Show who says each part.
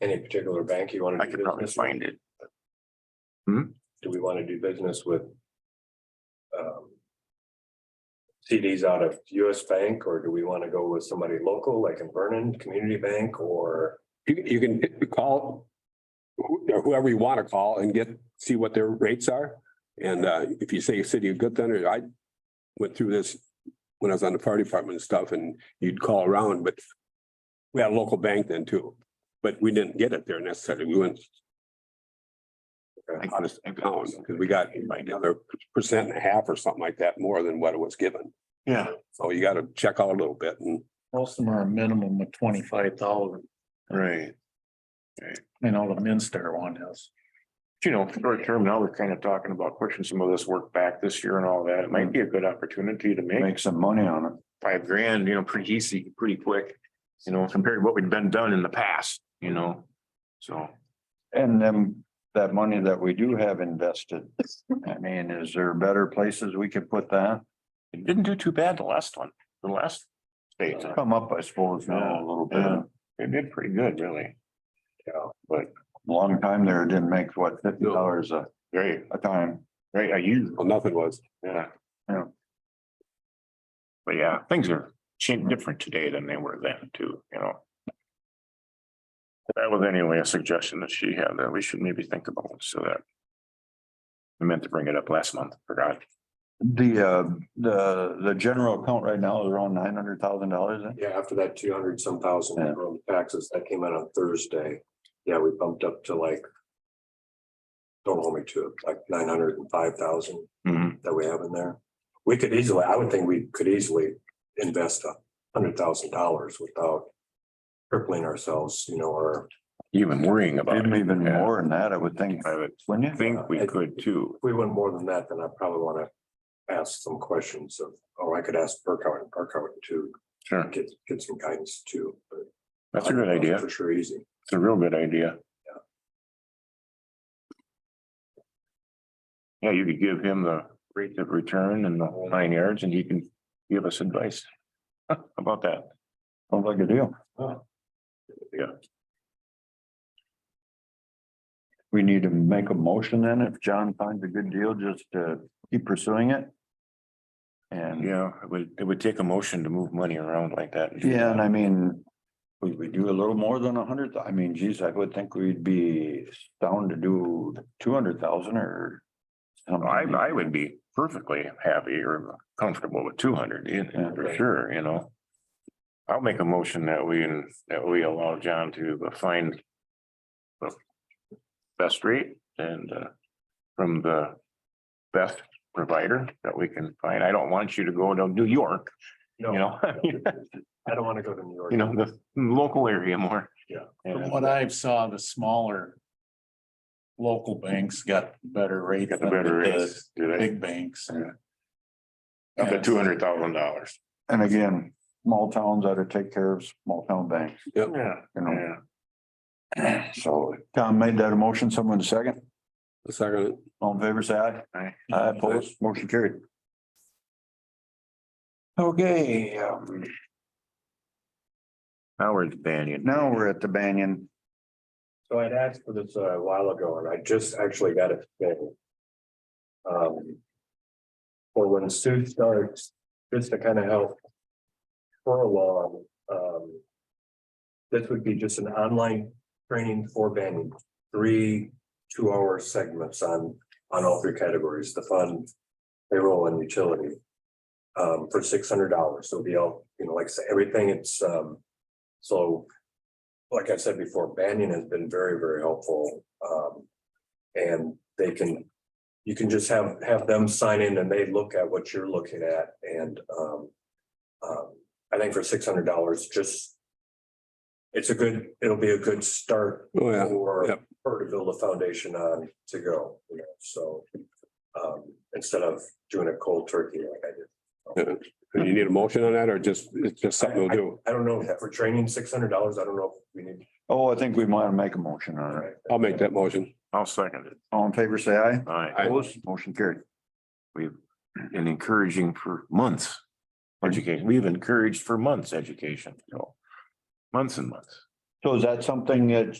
Speaker 1: Any particular bank you want
Speaker 2: I
Speaker 1: to do
Speaker 2: could probably
Speaker 1: business? with?
Speaker 2: find it.
Speaker 1: Do we want to do business with? um, CDs out of US Bank, or do we want to go with somebody local like in Vernon Community Bank or?
Speaker 3: You, you can hit- call who- or whoever you want to call and get, see what their rates are. And uh, if you say City of Good Thunder, I went through this when I was on the fire department and stuff and you'd call around, but we had a local bank then too, but we didn't get it there necessarily. We went
Speaker 2: I-
Speaker 3: out of town because we got another percent and a half or something like that, more than what it was given.
Speaker 4: Yeah,
Speaker 3: So you got to check out a little bit and
Speaker 5: Most of them are a minimum of twenty-five thousand.
Speaker 4: right.
Speaker 5: I know the Minster one is.
Speaker 4: You know, short term, now we're kind of talking about pushing some of this work back this year and all that. It might be a good opportunity to make
Speaker 2: Make some money on it.
Speaker 4: five grand, you know, pretty easy, pretty quick. You know, compared to what we've been done in the past, you know, so.
Speaker 2: And then that money that we do have invested, I mean, is there better places we could put that?
Speaker 4: It didn't do too bad the last one, the last state.
Speaker 2: Come up, I suppose, now a little
Speaker 4: Yeah,
Speaker 2: bit.
Speaker 4: it did pretty good, really. Yeah, but
Speaker 2: Long time there, it didn't make what, fifty dollars a,
Speaker 4: great,
Speaker 2: a time.
Speaker 4: great, I used,
Speaker 3: well, nothing was.
Speaker 4: yeah.
Speaker 2: Yeah.
Speaker 4: But yeah, things are changed different today than they were then too, you know. That was anyway a suggestion that she had that we should maybe think about, so that. I meant to bring it up last month, forgot.
Speaker 2: The, uh, the, the general account right now is around nine hundred thousand dollars.
Speaker 1: Yeah, after that two hundred some thousand
Speaker 2: Yeah.
Speaker 1: from taxes that came out on Thursday, yeah, we bumped up to like. Don't hold me to it, like nine hundred and five thousand. that we have in there. We could easily, I would think we could easily invest a hundred thousand dollars without crippling ourselves, you know, or
Speaker 4: Even worrying about
Speaker 2: Maybe
Speaker 4: it.
Speaker 2: even
Speaker 4: Yeah.
Speaker 2: more than that, I would think,
Speaker 4: I would
Speaker 2: wouldn't you?
Speaker 4: think we could too.
Speaker 1: if we went more than that, then I probably want to ask some questions of, or I could ask Burkhardt and Burkhardt to
Speaker 4: Sure,
Speaker 1: get, get some guidance too. but
Speaker 4: that's a good idea.
Speaker 1: For sure, easy.
Speaker 4: It's a real good idea. Yeah, you could give him the rate of return and the whole nine yards and he can give us advice about that.
Speaker 2: Sounds like a deal.
Speaker 4: Yeah.
Speaker 2: We need to make a motion then, if John finds a good deal, just to keep pursuing it. And.
Speaker 4: Yeah, it would, it would take a motion to move money around like that.
Speaker 2: Yeah, and I mean, we, we do a little more than a hundred, thou- I mean, geez, I would think we'd be down to do two hundred thousand or. something.
Speaker 4: I, I would be perfectly happy or comfortable with two hundred,
Speaker 2: Yeah.
Speaker 4: for sure, you know. I'll make a motion that we, that we allow John to uh, find the best rate and, uh, from the best provider that we can find. I don't want you to go to New York,
Speaker 1: No,
Speaker 4: you know?
Speaker 1: I don't want to go to New York.
Speaker 4: You know, the local area more.
Speaker 1: Yeah.
Speaker 4: And
Speaker 5: From what I've saw, the smaller. Local banks got better rates.
Speaker 4: Got the
Speaker 5: than
Speaker 4: better
Speaker 5: the
Speaker 4: rates, do they?
Speaker 5: Big banks.
Speaker 4: Up to two hundred thousand dollars.
Speaker 2: And again, small towns ought to take care of small town banks,
Speaker 4: Yeah.
Speaker 2: you know,
Speaker 4: Yeah.
Speaker 2: so Tom made that a motion, someone second,
Speaker 3: The second,
Speaker 2: all in favor, say aye.
Speaker 4: Aye.
Speaker 2: Aye, opposed, motion carried. Okay, um,
Speaker 4: Howard Banyan.
Speaker 2: now we're at the Banyan,
Speaker 1: So I'd asked for this uh, a while ago and I just actually got it. today. Um, For when Sue starts, just to kind of help her along, um. This would be just an online training for banning, three two-hour segments on, on all three categories, the fund, payroll and utility. Um, for six hundred dollars, so it'll be all, you know, like I said, everything, it's, um, so like I said before, Banyan has been very, very helpful. Um, and they can, you can just have, have them sign in and they look at what you're looking at and, um, um, I think for six hundred dollars, just it's a good, it'll be a good start
Speaker 3: oh yeah.
Speaker 1: for
Speaker 3: yep.
Speaker 1: her to build a foundation on to go, you know, so um, instead of doing a cold turkey like I did.
Speaker 3: Do you need a motion on that or just, it's just something to do?
Speaker 1: I don't know if for training, six hundred dollars, I don't know if we need.
Speaker 2: oh, I think we might make a motion on it,
Speaker 3: I'll make that motion.
Speaker 4: I'll second it.
Speaker 2: all in favor, say aye.
Speaker 4: All right.
Speaker 3: Aye.
Speaker 2: Opposed, motion carried.
Speaker 4: We've been encouraging for months. Education, we've encouraged for months education, you know, months and months.
Speaker 2: So is that something that